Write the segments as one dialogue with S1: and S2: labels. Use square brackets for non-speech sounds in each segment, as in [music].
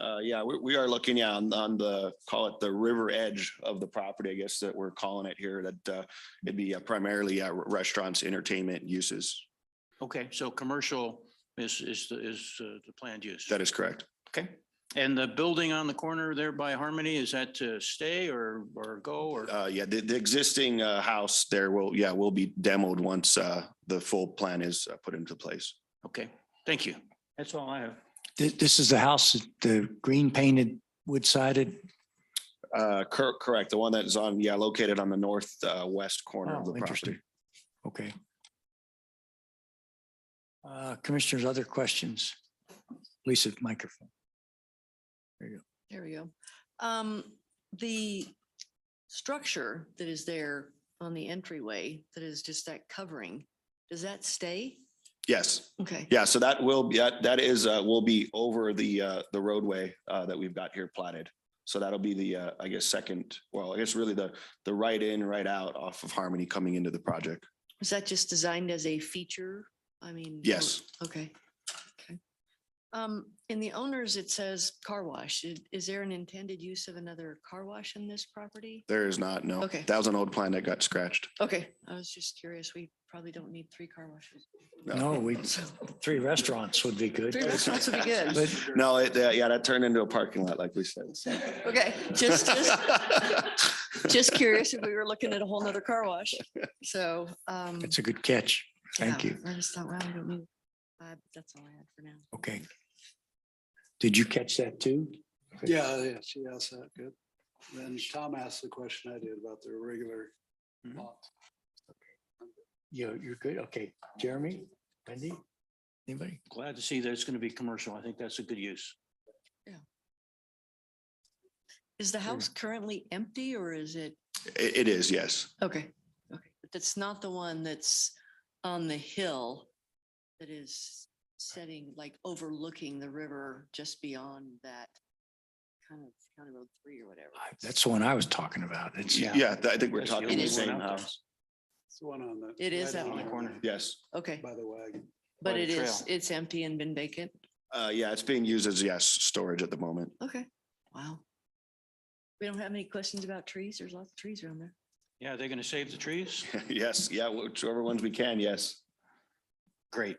S1: Uh, yeah, we, we are looking yeah, on, on the, call it the river edge of the property, I guess that we're calling it here, that, uh, it'd be uh, primarily, uh, restaurants, entertainment uses.
S2: Okay, so commercial is, is, the is uh, the planned use.
S1: That is correct.
S2: Okay. And the building on the corner there by Harmony, is that to stay or, or go or?
S1: Uh, yeah, the, the existing, uh, house there will, yeah, will be demoed once, uh, the full plan is uh, put into place.
S2: Okay, thank you. That's all I have.
S3: This, this is the house, the green painted, wood sided.
S1: Uh, cor- correct, the one that is on, yeah, located on the north, uh, west corner of the
S3: Oh,
S1: property.
S3: interesting. Okay. Uh, Commissioners, other questions? Lisa, microphone.
S4: There we go. Um, the structure that is there on the entryway, that is just that covering, does that stay?
S1: Yes.
S4: Okay,
S1: Yeah, so that will be, that that is, uh, will be over the, uh, the roadway, uh, that we've got here platted. So that'll be the, uh, I guess, second, well, I guess really the, the right in, right out off of Harmony coming into the project.
S4: is that just designed as a feature? I mean. or-
S1: Yes,
S4: Okay, okay. Um, in the owners, it says car wash. I- Is there an intended use of another car wash in this property?
S1: there is not, no.
S4: Okay.
S1: That was an old plan that got scratched.
S4: Okay, I was just curious. We probably don't need three car washes.
S3: No, we,
S4: So
S3: three restaurants would be good.
S4: three restaurants would be good.
S3: But
S1: No, it, uh, yeah, that turned into a parking lot, like we said. so.
S4: [laughs] Okay, just, just, just curious if we were looking at a whole nother car wash. So, um.
S3: it's a good catch. Thank
S4: yeah,
S3: you.
S4: I just thought, wow, we don't need, uh, that's all I had for now.
S3: Okay. Did you catch that too?
S5: Yeah, yeah, she asked that, good. Then Tom asked the question I did about their regular.
S2: Mhm.
S5: lot.
S3: You, you're good. Okay. Jeremy, Wendy, anybody?
S2: Glad to see that it's going to be commercial. I think that's a good use.
S4: Is the house currently empty or is it,
S1: [laughs] It, it is, yes.
S4: okay, okay, but that's not the one that's on the hill that is setting, like overlooking the river just beyond that kind of County Road Three or
S5: Uh,
S4: whatever.
S3: I- That's the one I was talking about. It's,
S2: Yeah.
S1: Yeah, th- I think we're
S2: That's the
S1: talking
S2: only
S1: the
S4: is.
S2: one
S1: same
S2: out there.
S1: house.
S5: It's the one on the.
S4: It is
S5: right
S4: that
S5: on
S4: one.
S5: the
S2: Corner.
S1: Yes.
S4: Okay,
S5: By the wagon.
S4: but
S2: the
S4: it is,
S2: trail.
S4: it's empty and been vacant.
S1: Uh, yeah, it's being used as, yes, storage at the moment. [laughs]
S4: Okay, wow. We don't have any questions about trees. There's lots of trees around there.
S2: Yeah, they're going to save
S1: [laughs]
S2: the trees?
S1: Yes, yeah, whichever ones we can, yes.
S2: Great.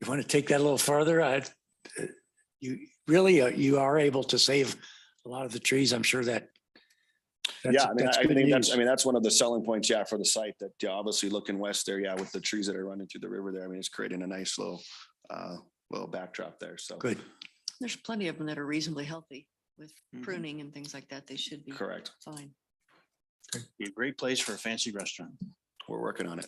S3: you want to take that a little further? I, you really, uh, you are able to save a lot of the trees. I'm sure that.
S1: Yeah,
S3: that's-
S1: I mean,
S3: that's
S1: I
S3: good
S1: think that's,
S3: news.
S1: I mean, that's one of the selling points, yeah, for the site that yeah, obviously looking west there, yeah, with the trees that are running through the river there. I mean, it's creating a nice little, uh, little backdrop there. So.
S3: Good.
S4: There's plenty of them that are reasonably healthy with
S2: Mhm.
S4: pruning and things like that. They should be
S1: Correct.
S4: fine.
S2: Be a great place for a fancy restaurant.
S1: We're working on it.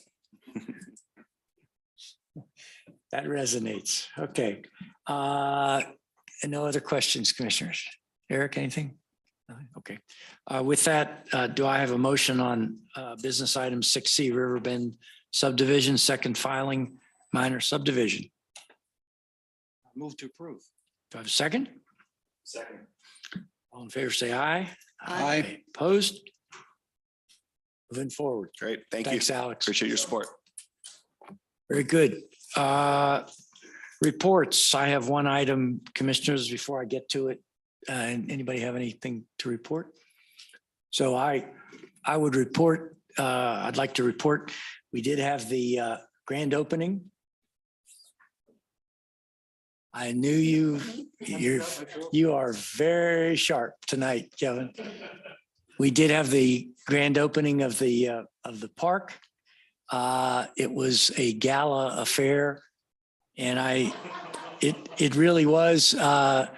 S3: That resonates. Okay. Uh, and no other questions, commissioners? Eric, anything? No? Okay. Uh, with that, uh, do I have a motion on, uh, business item six C Riverbend subdivision, second filing, minor subdivision?
S2: Move to approve.
S3: Do I have a second? Second. All in favor, say aye.
S4: Aye.
S3: Opposed? Moving forward.
S1: Great. Thank you.
S3: Thanks, Alex.
S1: Appreciate your support.
S3: Very good. Uh, Reports, I have one item, commissioners, before I get to it. Uh, And anybody have anything to report? So I, I would report, uh, I'd like to report, we did have the uh, grand opening. I knew you, you're, you are very sharp tonight, Kevin. We did have the grand opening of the, uh, of the park. Uh, It was a gala affair. And I, it, it really was. uh,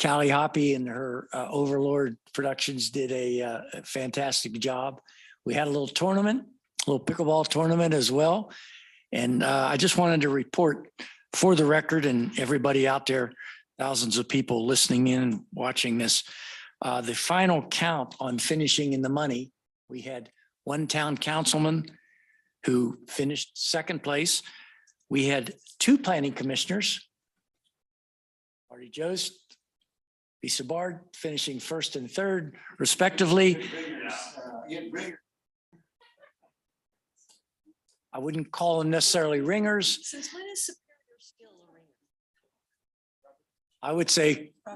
S3: Callie Hoppy and her uh, Overlord Productions did a uh, fantastic job. We had a little tournament, a little pickleball tournament as well. And uh, I just wanted to report for the record and everybody out there, thousands of people listening in, and watching this, uh, the final count on finishing in the money, we had one town councilman, who finished second place. We had two planning commissioners. Marty Jost, Lisa Bard finishing first and third respectively. I wouldn't call them necessarily ringers.
S4: Since when is superior skill a ringer?
S3: I would say